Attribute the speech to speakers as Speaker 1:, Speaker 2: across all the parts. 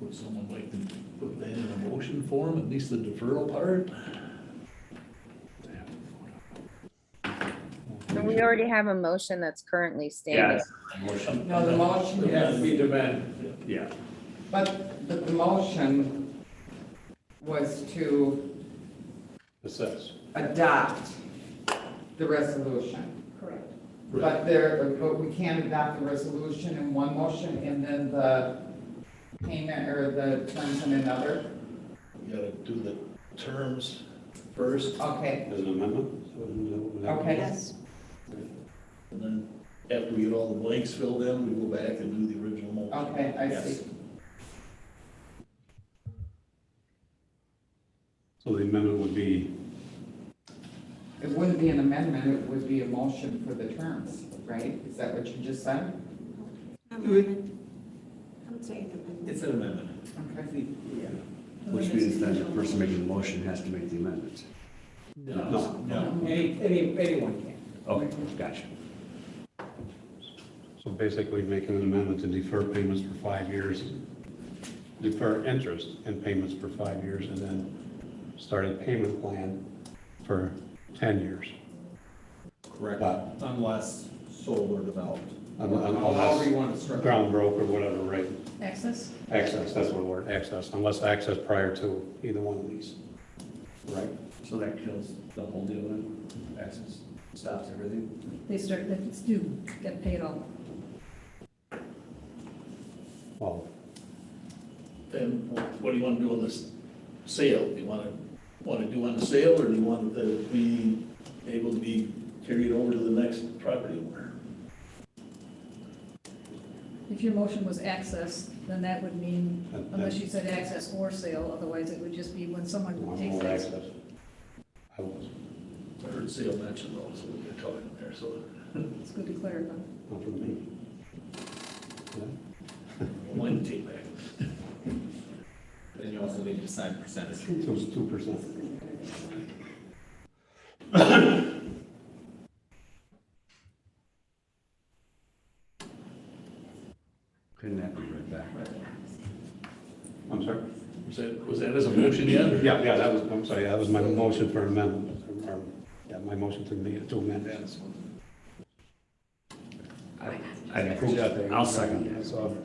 Speaker 1: Would someone like to put that in a motion form, at least the deferral part?
Speaker 2: And we already have a motion that's currently standing.
Speaker 3: Yes. Motion.
Speaker 4: No, the motion has been amended,
Speaker 3: Yeah,
Speaker 4: but, but the motion was to
Speaker 1: Assess.
Speaker 4: adopt the resolution.
Speaker 5: Correct.
Speaker 4: But there, but we can't adopt the resolution in one motion and then the payment or the terms in another.
Speaker 6: You gotta do the terms first,
Speaker 4: Okay,
Speaker 7: As an amendment? So we can do it.
Speaker 4: okay.
Speaker 5: Yes,
Speaker 6: and then after we get all the blanks filled in, we go back and do the original motion.
Speaker 4: Okay, I
Speaker 6: Yes.
Speaker 4: see.
Speaker 7: So the amendment would be,
Speaker 4: It wouldn't be an amendment, it would be a motion for the terms, right? Is that what you just said?
Speaker 5: amendment. I would say an amendment.
Speaker 6: It's an amendment.
Speaker 4: Okay.
Speaker 8: Which means then the person making the motion has to make the amendment.
Speaker 7: no,
Speaker 6: No.
Speaker 9: Any, any, anyone can.
Speaker 8: Okay, gotcha.
Speaker 7: so basically making an amendment to defer payments for five years, defer interest and payments for five years, and then start a payment plan for 10 years.
Speaker 6: Correct.
Speaker 7: But
Speaker 6: Unless solar developed.
Speaker 7: un- un-
Speaker 4: However you
Speaker 7: unless
Speaker 4: want to structure. it.
Speaker 7: ground broke or whatever, right?
Speaker 5: Access?
Speaker 7: Access, that's what word, access, unless access prior to either one of these. Right.
Speaker 6: So that kills the whole deal then? Access stops everything?
Speaker 5: They start, it's due, get paid all.
Speaker 7: Well,
Speaker 6: Then wh- what do you wanna do on this sale? Do you wanna, wanna do on the sale, or do you want it to be able to be carried over to the next property owner?
Speaker 5: If your motion was access, then that would mean,
Speaker 7: That- that-
Speaker 5: unless you said access or sale, otherwise it would just be when someone
Speaker 7: one
Speaker 5: takes
Speaker 7: more
Speaker 5: that.
Speaker 7: access. I was,
Speaker 6: I heard sale mentioned also, we were talking there, so
Speaker 5: It's good to clarify.
Speaker 7: not for me. Yeah.
Speaker 6: one take back.
Speaker 10: Then you also need to decide percentage.
Speaker 7: So it's two percent.
Speaker 8: Couldn't that be right back?
Speaker 7: I'm sorry?
Speaker 1: Was that, was that as a motion yet? or-
Speaker 7: Yeah, yeah, that was, I'm sorry, that was my motion for amendment. or, Yeah, my motion to amend, to amend that. I approved that thing.
Speaker 8: I'll second that.
Speaker 7: So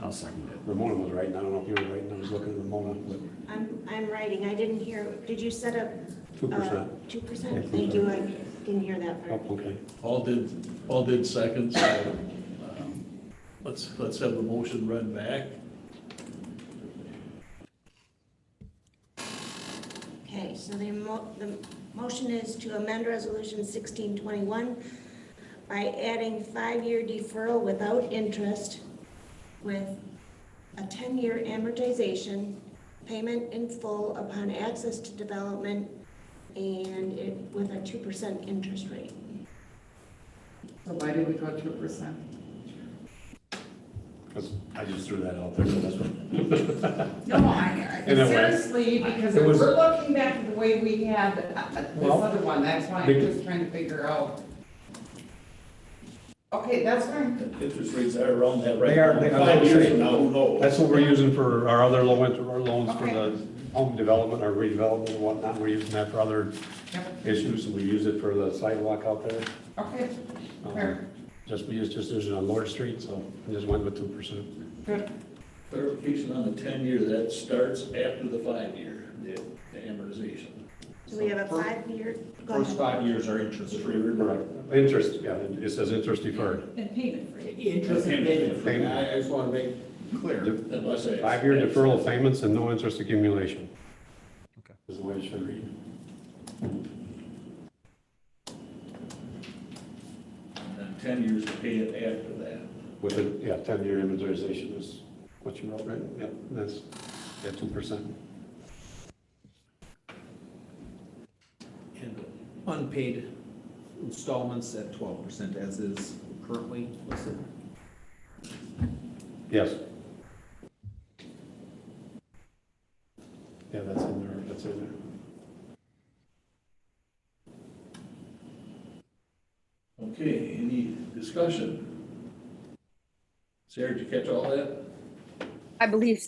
Speaker 8: I'll second it.
Speaker 7: Ramona was right, and I don't know if you were right, and I was looking at Ramona, but
Speaker 11: I'm, I'm writing, I didn't hear, did you set up? uh,
Speaker 7: two percent.
Speaker 11: Two
Speaker 7: Yeah,
Speaker 11: percent?
Speaker 7: two
Speaker 11: Thank you, I didn't hear that part.
Speaker 7: Oh, okay.
Speaker 1: All did, all did second, so, um, let's, let's have the motion read back.
Speaker 11: Okay, so the mo, the motion is to amend resolution sixteen twenty-one by adding five-year deferral without interest with a ten-year amortization, payment in full upon access to development, and it, with a two percent interest rate.
Speaker 4: So why did we go to a percent?
Speaker 7: Because I just threw that out there, so that's what.
Speaker 4: No, I, I-
Speaker 7: In a way.
Speaker 4: seriously, because
Speaker 7: It
Speaker 4: if
Speaker 7: was-
Speaker 4: we're looking back to the way we had uh, this
Speaker 7: Well,
Speaker 4: other one, that's why I'm
Speaker 7: big-
Speaker 4: just trying to figure out. Okay, that's fine.
Speaker 6: Interest rates are around that right
Speaker 7: They are-
Speaker 6: now.
Speaker 7: they are.
Speaker 6: Five years from now, who knows?
Speaker 7: That's what we're using for our other low interest loans for the home development or redevelopment and whatnot. We're using that for other
Speaker 4: Yep,
Speaker 7: issues. We use it for the sidewalk out there.
Speaker 4: Okay,
Speaker 7: Um,
Speaker 4: Fair.
Speaker 7: Just, we just, just used it on Lord Street, so I just went with two percent.
Speaker 6: Clarification on the ten-year, that starts after the five-year, the the amortization.
Speaker 11: So we have a five-year. go ahead.
Speaker 10: First five years are interest-free.
Speaker 7: Interest, yeah, it says interest deferred.
Speaker 5: And payment for it.
Speaker 10: Interest and payment for that. I I just want to make clear.
Speaker 6: Unless I.
Speaker 7: Five-year deferral of payments and no interest accumulation. Is the way it should read.
Speaker 6: And then ten years to pay it after that.
Speaker 7: With, a yeah, ten-year amortization is what you wrote, right? Yeah, that's, yeah, two percent.
Speaker 10: And unpaid installments at twelve percent as is currently listed.
Speaker 7: Yes. Yeah, that's in there, that's in there.
Speaker 6: Okay, any discussion? Sarah, did you catch all that?
Speaker 2: I believe